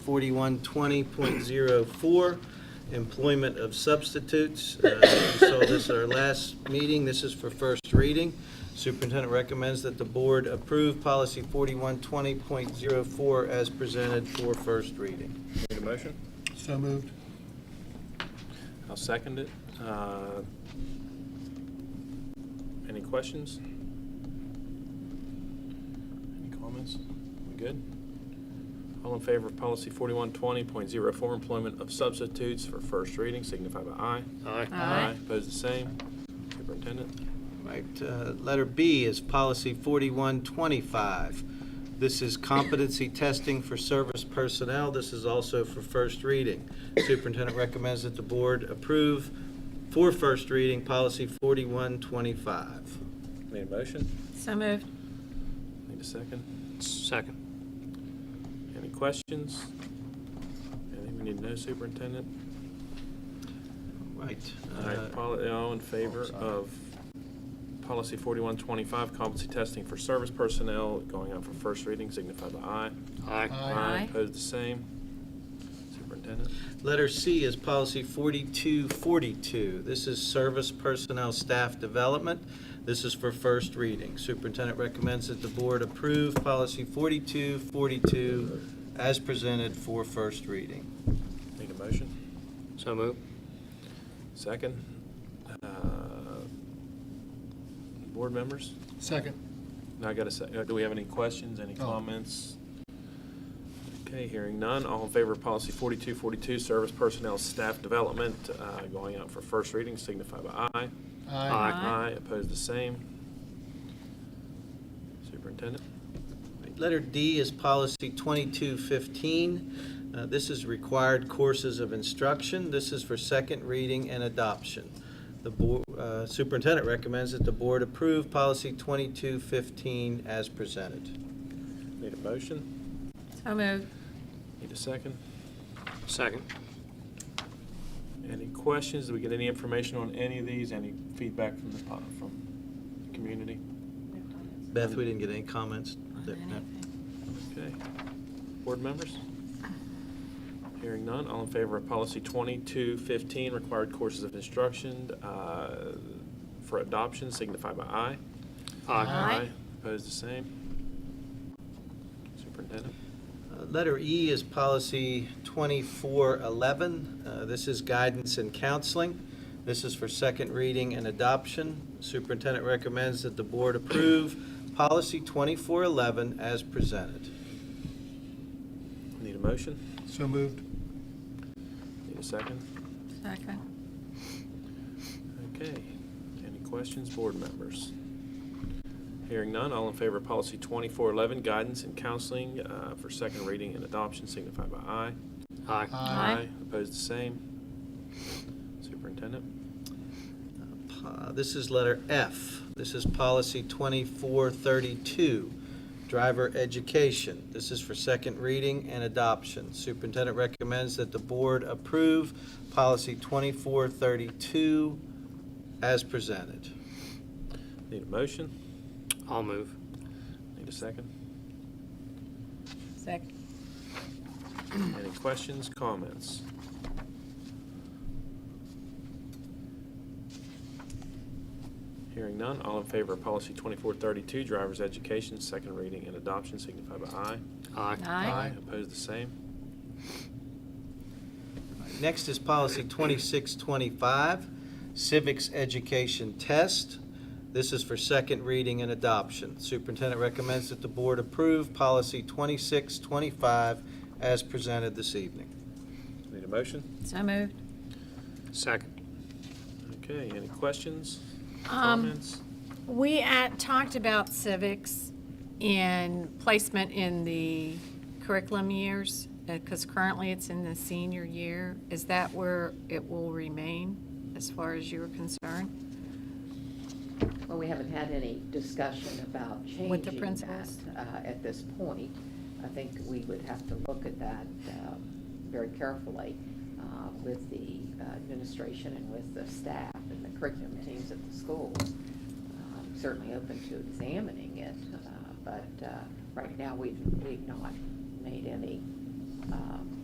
4120.04, employment of substitutes. Uh, You saw this at our last meeting. This is for first reading. Superintendent recommends that the board approve policy 4120.04 as presented for first reading. Need a motion? So moved. I'll second it. Uh, Any questions? Any comments? We good? All in favor of policy 4120.04, employment of substitutes for first reading, signify by aye. Aye. Opposed, the same. Superintendent? Right, uh, letter B is policy 4125. This is competency testing for service personnel. This is also for first reading. Superintendent recommends that the board approve for first reading, policy 4125. Need a motion? So moved. Need a second? Second. Any questions? Anything we need to know, Superintendent? Right. All right, uh, poli- all in favor of policy 4125, competency testing for service personnel, going out for first reading, signify by aye. Aye. Aye. Opposed, the same. Superintendent? Letter C is policy 4242. This is service personnel staff development. This is for first reading. Superintendent recommends that the board approve policy 4242 as presented for first reading. Need a motion? So moved. Second? Uh, Board members? Second. Now I got a sec, uh, do we have any questions, any No. comments? Okay, hearing none, all in favor of policy 4242, service personnel staff development, uh, going out for first reading, signify by aye. Aye. Aye, opposed the same. Superintendent? Letter D is policy 2215. Uh, This is required courses of instruction. This is for second reading and adoption. The bo- uh, superintendent recommends that the board approve policy 2215 as presented. Need a motion? So moved. Need a second? Second. Any questions? Did we get any information on any of these? Any feedback from the, po- from the community? Beth, we didn't get any comments. On No. anything. Okay. Board members? Hearing none, all in favor of policy 2215, required courses of instruction uh, for adoption, signify by aye. Aye. Opposed the same. Superintendent? Uh, Letter E is policy 2411. Uh, This is guidance and counseling. This is for second reading and adoption. Superintendent recommends that the board approve policy 2411 as presented. Need a motion? So moved. Need a second? Second. Okay, any questions, board members? Hearing none, all in favor of policy 2411, guidance and counseling uh, for second reading and adoption, signify by aye. Aye. Aye. Opposed, the same. Superintendent? Uh, This is letter F. This is policy 2432, driver education. This is for second reading and adoption. Superintendent recommends that the board approve policy 2432 as presented. Need a motion? I'll move. Need a second? Second. Any questions, comments? Hearing none, all in favor of policy 2432, driver's education, second reading and adoption, signify by aye. Aye. Aye. Opposed, the same. Next is policy 2625, civics education test. This is for second reading and adoption. Superintendent recommends that the board approve policy 2625 as presented this evening. Need a motion? So moved. Second. Okay, any questions, Um, comments? We at, talked about civics in placement in the curriculum years, because currently it's in the senior year. Is that where it will remain, as far as you're concerned? Well, we haven't had any discussion about changing With the that, principals? uh, At this point, I think we would have to look at that um, very carefully uh, with the uh, administration and with the staff and the curriculum teams at the schools. Um, Certainly open to examining it, uh, but uh, right now, we've, we've not made any um,